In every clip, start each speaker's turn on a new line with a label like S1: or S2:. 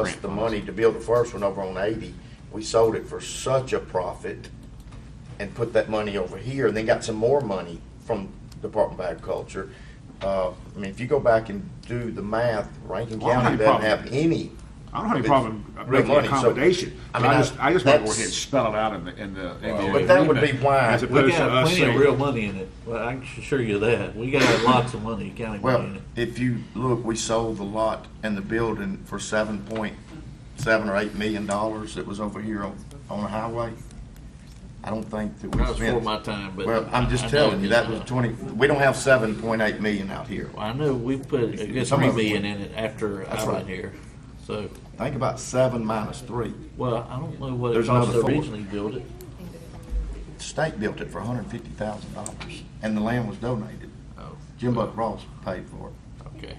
S1: us the money to build the first one over on eighty. We sold it for such a profit and put that money over here and then got some more money from Department of Agriculture. Uh, I mean, if you go back and do the math, Rankin
S2: Well, I don't
S1: County
S2: have a
S1: doesn't have any.
S2: I don't have any
S1: It's
S2: problem
S1: real
S2: making
S1: money, so-
S2: accommodation,
S1: I
S2: but
S1: mean,
S2: I
S1: I-
S2: just, I just want to go
S1: that's-
S2: ahead and spell it out in the, in the. in the
S1: But that would be
S2: agreement,
S1: why-
S2: As
S3: We
S2: opposed to
S3: got
S2: us
S3: plenty of
S2: saying.
S3: real money in it, well, I can assure you that, we got lots of money, county money in
S1: Well,
S3: it.
S1: if you look, we sold the lot and the building for seven point seven or eight million dollars that was over here on, on the highway. I don't think that we
S3: That was
S1: spent.
S3: before my time, but.
S1: Well, I'm
S3: I-
S1: just
S3: I
S1: telling
S3: know
S1: you,
S3: that,
S1: that was
S3: uh,
S1: twenty, we don't have seven point eight million out here.
S3: I know, we put a good
S1: Some
S3: three
S1: of it
S3: million
S1: went-
S3: in it after
S1: That's
S3: I was
S1: right.
S3: here, so,
S1: Think about seven minus three.
S3: well, I don't know what it
S1: There's
S3: cost
S1: another
S3: to
S1: four.
S3: originally build it.
S1: The state built it for hundred and fifty thousand dollars, and the land was donated.
S3: Oh,
S1: Jim Buck Ross paid for it.
S3: okay.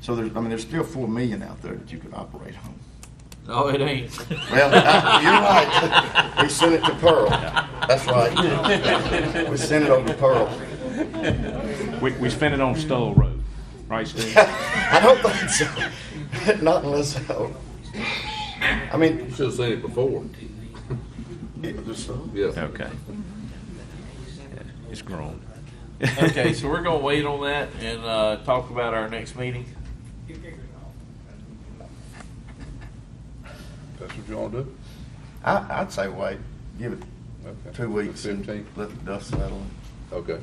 S1: So there's, I mean, there's still four million out there that you could operate on.
S3: No, it ain't.
S1: Well, I- you're right. We sent it to Pearl. That's right. We sent it over to Pearl.
S2: We, we spent it on Stoll Road, right, Steve?
S1: I don't think so. Not unless, I mean,
S4: Should have seen it before.
S1: it was,
S4: Yeah.
S2: Okay. It's grown.
S3: Okay, so we're gonna wait on that and, uh, talk about our next meeting.
S4: That's what you want to do?
S1: I, I'd say wait, give it
S4: Okay.
S1: two weeks and
S4: Fifteenth,
S1: let the dust settle.
S4: okay.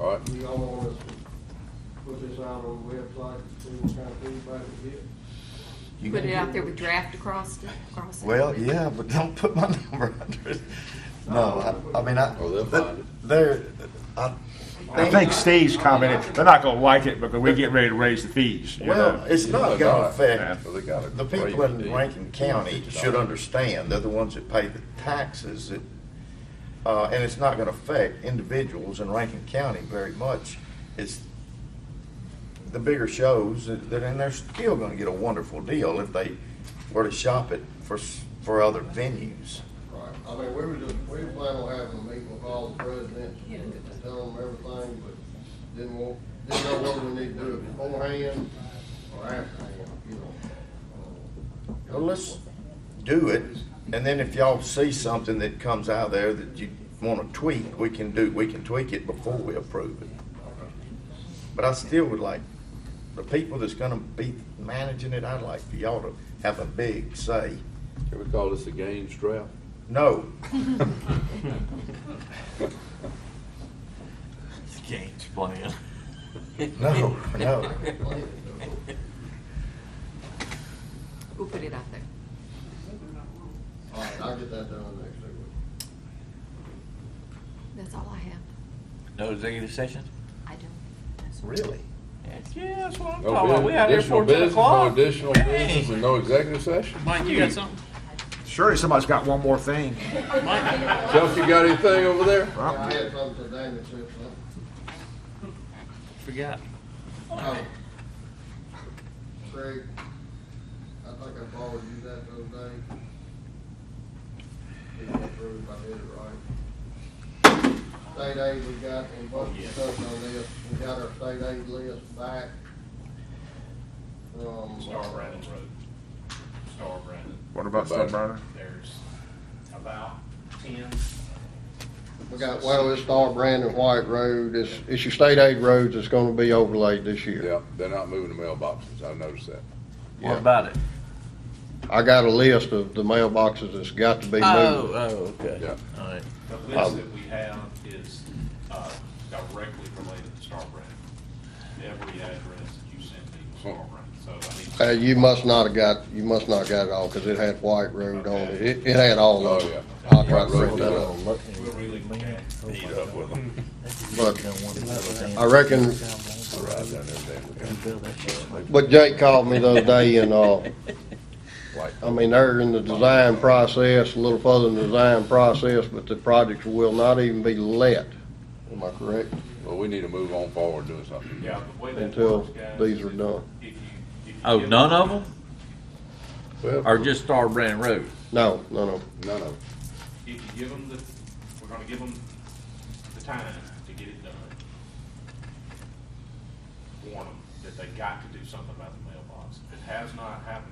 S4: All right,
S5: Do y'all want us to put this out on the website, see what kind of feedback we get?
S1: You-
S6: Put it out there with draft across it, across it.
S1: Well, yeah, but don't put my number under it. No, I, I mean, I.
S4: Oh, they'll find it.
S1: They're, I.
S2: I think Steve's commented, they're not gonna like it because we get ready to raise the fees, you
S1: Well,
S2: know?
S1: it's not gonna
S2: Yeah.
S1: affect
S4: so they got it.
S1: The people in Rankin County should understand, they're the ones that pay the taxes, that, uh, and it's not gonna affect individuals in Rankin County very much. It's the bigger shows, that, that- and they're still gonna get a wonderful deal if they were to shop it for, s- for other venues.
S5: Right, I mean, we were just, we plan on having a meeting with all the presidents and tell them everything, but didn't want, didn't know what we need to do beforehand or afterhand, you know.
S1: Well, let's do it, and then if y'all see something that comes out of there that you wanna tweak, we can do, we can tweak it before we approve it. But I still would like, the people that's gonna be managing it, I'd like for y'all to have a big say.
S4: Can we call this a games draft?
S1: No,
S3: Game's playing.
S1: no, no.
S6: We'll put it out there.
S5: All right, I'll get that done next week.
S6: That's all I have.
S3: No executive session?
S6: I don't.
S1: Really?
S3: Yeah, that's what I'm
S4: No
S3: talking about,
S4: bu-
S3: we out here
S4: additional
S3: for ten
S4: business, no
S3: o'clock.
S4: Additional
S3: Dang.
S4: business and no executive session?
S7: Mike, you got something?
S2: Surely somebody's got one more thing.
S4: Chuck, you got anything over there?
S5: Yeah, I had something today that said something.
S3: Forgot.
S5: Oh. Craig, I think I borrowed you that the other day. Didn't go through, if I did it right. State aid we got, and bunch of stuff on this, we got our state aid list back from.
S8: Star Brandon Road. Star Brandon.
S2: What about Stone Brandon?
S8: There's about ten.
S5: We got, well, it's Star Brandon White Road, it's, it's your state aid roads that's gonna be overlaid this year.
S4: Yeah, they're not moving the mailboxes, I noticed that.
S3: What about it?
S5: I got a list of the mailboxes that's got to be
S3: Oh,
S5: moved.
S3: oh, okay,
S4: Yeah.
S3: all right.
S8: The
S5: Oh.
S8: list that we have is uh, directly related to Star Brandon. Every address that you sent me was Star
S5: Hmm.
S8: Brandon, so I mean.
S5: Uh, you must not have got, you must not got it all, cause it had White Road on it, it, it had all of
S4: Oh, yeah.
S5: it. I'll try
S4: White
S5: to
S4: Road
S5: print that
S4: was
S5: up,
S8: We'll really look at it.
S4: Meet up with them.
S5: but I reckon,
S4: Ride down there and look at 'em.
S5: but Jake called me the other day and, uh,
S4: Like,
S5: I mean, they're in the design process, a little further in the design process, but the projects will not even be let, am I correct?
S4: Well, we need to move on forward doing something.
S8: Yeah, the way that
S5: Until
S8: works, guys,
S5: these
S8: is
S5: are done.
S8: if you- if you
S3: Oh,
S8: give
S3: none of them,
S4: Well,
S3: or just Star Brand Road?
S5: No, no, no.
S4: none of it.
S8: if you give them the, we're gonna give them the time to get it done. Warn them that they got to do something about the mailbox. If it has not happened,